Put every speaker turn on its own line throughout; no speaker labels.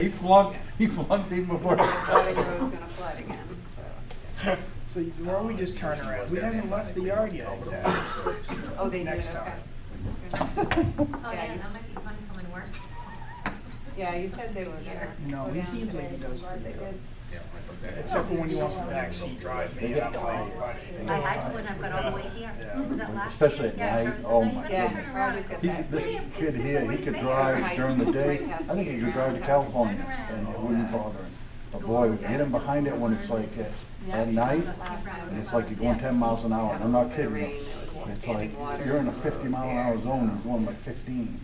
He flung, he flung people before.
Valley Road's gonna flood again, so.
So why don't we just turn around? We haven't left the yard yet, exactly.
Oh, they did,
Next
okay.
time.
Oh,
Yeah,
yeah,
you s-
that might be fun coming work.
Yeah, you said they were gonna.
No,
go
he
down
seems
today.
like he does
Glad they
pretty
did.
Except for when he wants to backseat drive me, and I'm like, buddy.
I had to when I got all the way here.
Yeah.
Was that last year?
Especially at
Yeah,
night.
Travis said,
Oh,
"No, you
my
better
Yeah,
turn
I
around."
always get
He,
that.
this
William, it's
kid
been
here,
way
he could
back.
drive during the day, I think he could drive to California, and it wouldn't bother him. But boy, we hit him behind it when it's like uh, at, at night,
Last time.
and it's like you're going ten miles an hour, and I'm not kidding you. It's like, you're in a fifty mile an hour zone, and going like fifteen.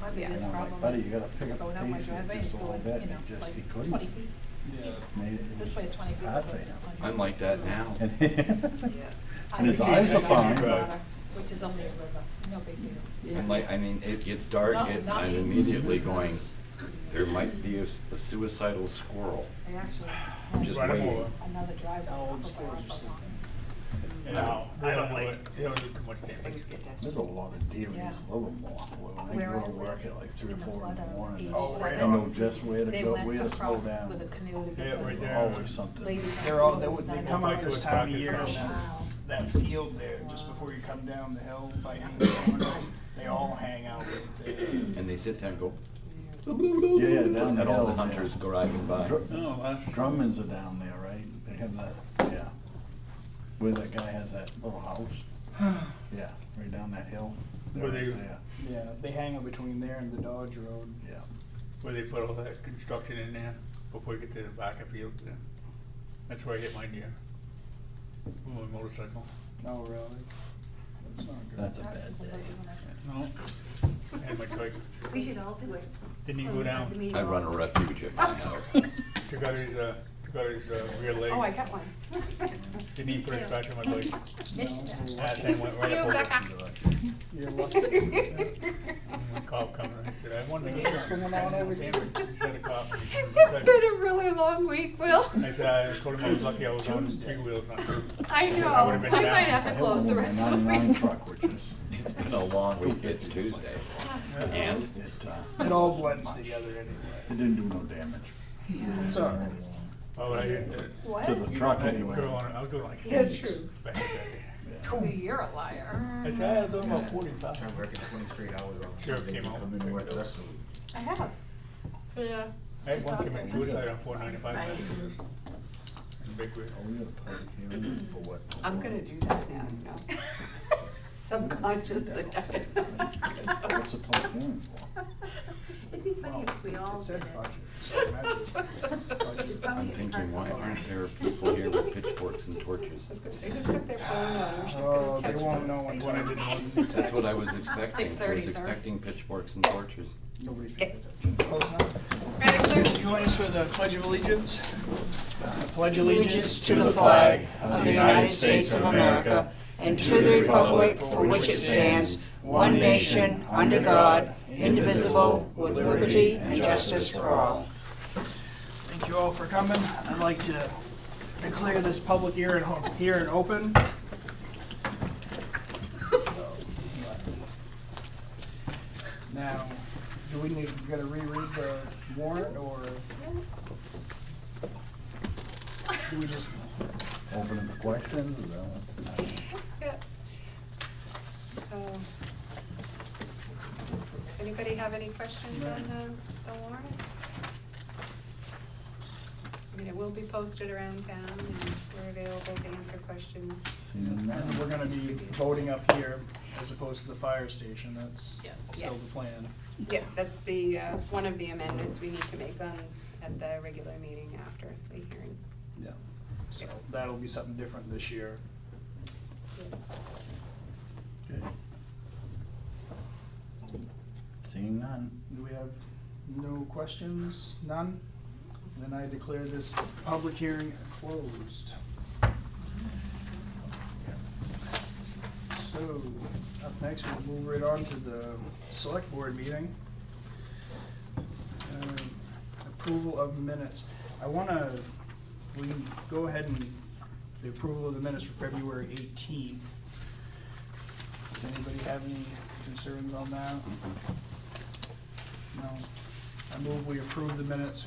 Might be
And
this
I'm like,
problem
buddy,
is
you gotta pick up
going
the
out my
pace here
driveway
just a
and
little
going,
bit,
you
and
know,
it just, he
like
couldn't.
20 feet.
Made it- it
This way is 20 feet,
hard
this way is
for him.
100.
I'm like that now.
And
Yeah.
and his eyes are fine.
Which is only a river, no big deal.
I'm like, I mean, it gets dark
Not-
and
not
I'm
even-
immediately going, there might be a s- a suicidal squirrel.
I actually
I'm just
Right, I'm
waiting.
over.
another driver.
How old
off of
scores
Rockland
are
Pond.
No, I don't like.
Always get that.
There's a lot of deer in this Livermore. When I
Where
go
I
to work
live,
at like three or
in the
four in
flood
the
of
morning, I
Oh,
right
know
on.
just where to
They
go, where
went
to slow
across
down.
with a canoe to
Yeah,
get
right
the
there.
Always something.
lady next
They're all,
door
they,
that
would-
was
they
nine
come
months
out this
old.
time of year on
Wow.
that, that field there, just before you come down the hill by Haynes. They all hang out right there.
And they sit there and go.
Yeah, down the
And all the
hill, yeah.
hunters go riding by.
Dr-
No, that's-
Drummond's are down there, right? They have that, yeah. Where that guy has that little house. Yeah, right down that hill. They're
Where they-
right there.
Yeah, they hang out between there and the Dodge Road.
Yeah.
Where they put all that construction in there before you get to the back of field. there. That's where I hit my deer. On my motorcycle.
Oh, really? That's not good.
That's a
That's
bad
the
day.
lady when I-
No. And my trike.
We should all do it.
Didn't even
Oh,
go
is that
down.
the meeting
I run a
hall?
refuge at my house.
Took out his, uh, took out his, uh, rear leg.
Oh, I got one.
Didn't even put his back on my bike.
No,
That thing went right up over. it.
You're lucky.
And the Cop coming, I said, I wanted to.
What's going on over there?
He said a cop.
It's been a really long week, Will.
I said, I told him I was lucky I was on
Tuesday.
three wheels, not two.
I know.
I would've been
I
down.
might have to close the rest of the
Ninety-nine
week.
truck, which is,
It's been a long week, it's Tuesday. And
it, uh,
It all blends together anyway.
it didn't do no damage.
It's all right.
Oh, I did. uh,
To
What?
the
you
truck
know, I
anyway.
drove on- I was doing like
That's
six
true.
back that day.
You're a liar.
I said, I was doing about forty-five.
I work twenty straight hours on
Sheriff
Sunday,
came out.
come in and work the rest of the week.
I have. Yeah.
I had
Just
one
not
commit
there.
suicide on four ninety-five.
Right.
Big wheel.
Are we at a public hearing for what?
I'm gonna do that now, you know. Subconsciously.
What's a public hearing for?
It'd be funny if we
It
all did
said
it.
budget, so imagine.
Should probably
I'm thinking, why aren't there people here with pitchforks and torches?
They just got their phone out, I'm just
Oh,
gonna
they
text
won't
them.
know when-
What I didn't want.
That's what I was expecting. I
6:30,
was
sir.
expecting pitchforks and torches.
Nobody's paying attention. Close enough. Join us for the Pledge of Allegiance. Pledge allegiance to the flag
of the United States of America and to the republic for which it stands, one nation, under God, indivisible, with liberty and justice for all.
Thank you all for coming. I'd like to declare this public hearing, hearing open. Now, do we need, gotta reread the warrant, or do we just,
Open to questions, is that what?
So, Does anybody have any questions on the, the warrant? I mean, it will be posted around town and we're available to answer questions.
Seeing none.
and we're gonna be voting up here as opposed to the fire station, that's
Yes.
still the
Yes.
plan.
Yeah, that's the, uh, one of the amendments we need to make on, at the regular meeting after the hearing.
Yeah. So that'll be something different this year.
Seeing none.
Do we have no questions? None? Then I declare this public hearing closed. So, up next, we'll move right on to the select board meeting. Um, Approval of minutes. I wanna, we can go ahead and the approval of the minutes for February eighteenth. Does anybody have any concerns on that? No. I move we approve the minutes